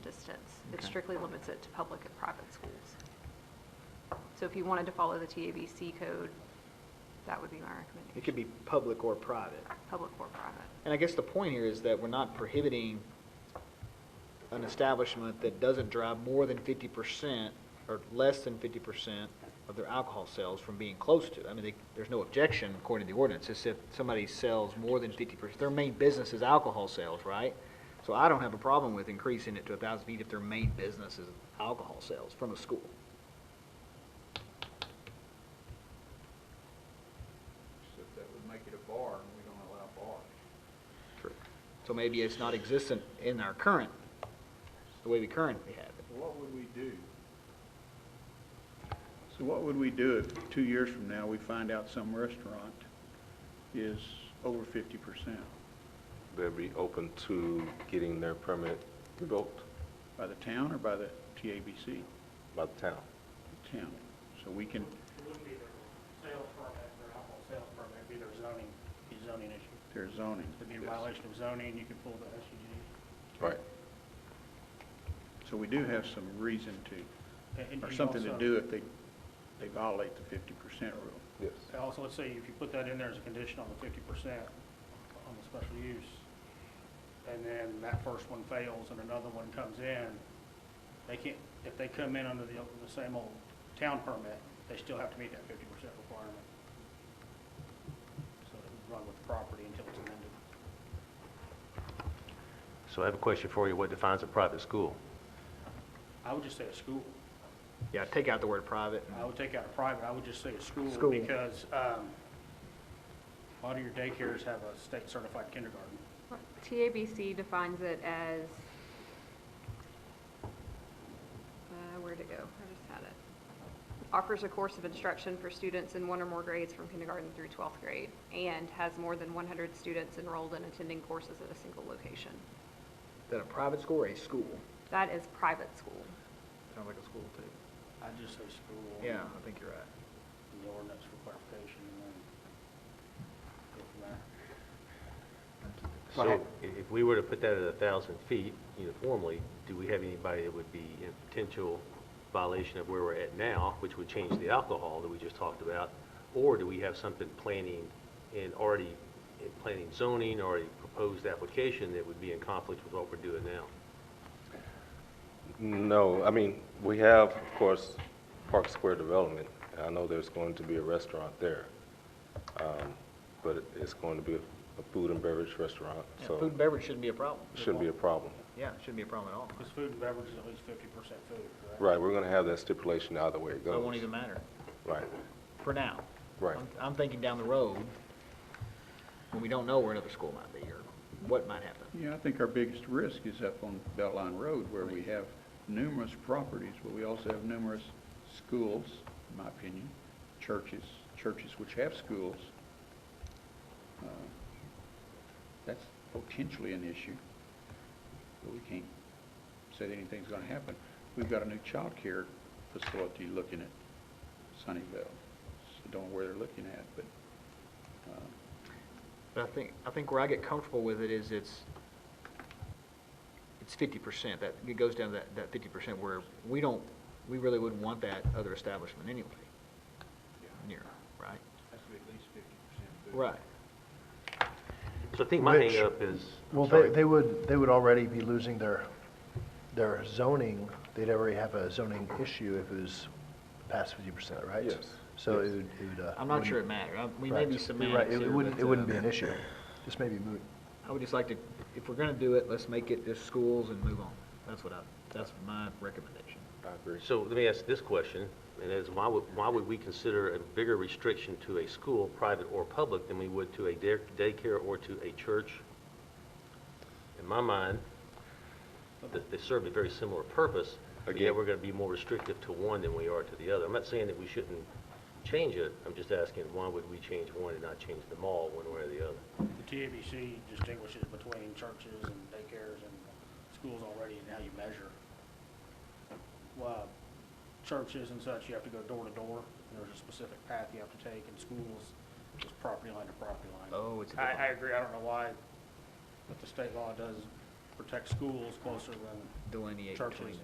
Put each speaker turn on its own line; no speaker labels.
It
Okay.
strictly limits it to public and private schools. So if you wanted to follow the TABC code, that would be my recommendation.
It could be public or private.
Public or private.
And I guess the point here is that we're not prohibiting an establishment that doesn't drive more than fifty percent or less than fifty percent of their alcohol sales from being close to. I mean, they, there's no objection according to the ordinance. It's if somebody sells more than fifty percent, their main business is alcohol sales, right? So I don't have a problem with increasing it to a thousand feet if their main business is alcohol sales from a school.
Except that would make it a bar, and we don't allow bars.
So maybe it's not existent in our current, the way we currently have it.
What would we do? So what would we do if two years from now, we find out some restaurant is over fifty percent
they'll be open to getting their permit revoked
by the town or by the TABC?
by the town.
The Town. So we can,
It wouldn't be their sales permit, their alcohol sales permit, it'd be their zoning, be zoning issue.
their zoning.
It'd be a violation of zoning, you could pull the SUD.
Right.
So we do have some reason to,
And- and
or
you
something to
also-
do if they, they violate the fifty percent rule.
Yes.
and Also, let's say if you put that in there as a condition on the fifty percent on the special use, and then that first one fails and another one comes in, they can't, if they come in under the, the same old town permit, they still have to meet that fifty percent requirement. So it would run with the property until it's amended.
So I have a question for you. What defines a private school?
I would just say a school.
Yeah, take out the word private. and-
I would take out a private, I would just say a
School.
school, because um, a lot of your daycares have a state-certified kindergarten.
TABC defines it as, uh, where'd it go? I just had it. Offers a course of instruction for students in one or more grades from kindergarten through 12th grade and has more than 100 students enrolled and attending courses at a single location.
Is that a private school or a school?
That is private school.
Sounds like a school too.
I'd just say school.
Yeah, I think you're right.
and The ordinance for clarification, and then go from there.
So i- if we were to put that at a thousand feet uniformly, do we have anybody that would be in potential violation of where we're at now, which would change the alcohol that we just talked about? Or do we have something planning and already, in planning zoning, already proposed application that would be in conflict with what we're doing now?
No, I mean, we have, of course, Park Square Development. I know there's going to be a restaurant there. Um, But it- it's going to be a food and beverage restaurant,
Yeah,
so
Food and beverage shouldn't be a problem.
shouldn't be a problem.
Yeah, shouldn't be a problem at all.
Because food and beverage is at least fifty percent food, correct?
Right, we're going to have that stipulation either way it
So
goes.
it won't even matter,
Right,
for now.
Right.
I'm- I'm thinking down the road, when we don't know where another school might be or what might happen.
Yeah, I think our biggest risk is up on Beltline Road where we have numerous properties, but we also have numerous schools, in my opinion, churches, churches which have schools. Uh, That's potentially an issue, but we can't say that anything's gonna happen. We've got a new childcare facility looking at Sunnyvale. So Don't know where they're looking at, but, uh,
But I think, I think where I get comfortable with it is it's, it's fifty percent. That, it goes down to that, that fifty percent where we don't, we really wouldn't want that other establishment anyway. Near, right?
Has to be at least fifty percent.
Right.
So I think my
Which-
hangup is. I'm
Well,
sorry.
they, they would, they would already be losing their, their zoning, they'd already have a zoning issue if it was past fifty percent, right?
Yes.
So it would, it would, uh.
I'm not sure it
wouldn't-
matters. I- We may
right.
be
You're right.
semantics
It-
here,
It wouldn't,
but,
it wouldn't
uh,
be an issue, just maybe moot.
I would just like to, if we're gonna do it, let's make it just schools and move on. That's what I, that's my recommendation.
I agree.
So let me ask this question, and that is why would, why would we consider a bigger restriction to a school, private or public, than we would to a day- daycare or to a church? In my mind, th- they serve a very similar purpose, but yet
Again.
we're gonna be more restrictive to one than we are to the other. I'm not saying that we shouldn't change it, I'm just asking, why would we change one and not change them all, one way or the other?
The TABC distinguishes between churches and daycares and schools already and how you measure. Well, churches and such, you have to go door to door, and there's a specific path you have to take, and schools, just property line to property line.
Oh, it's a
I, I
different-
agree, I don't know why, but the state law does protect schools closer than
Delineate
churches.
between.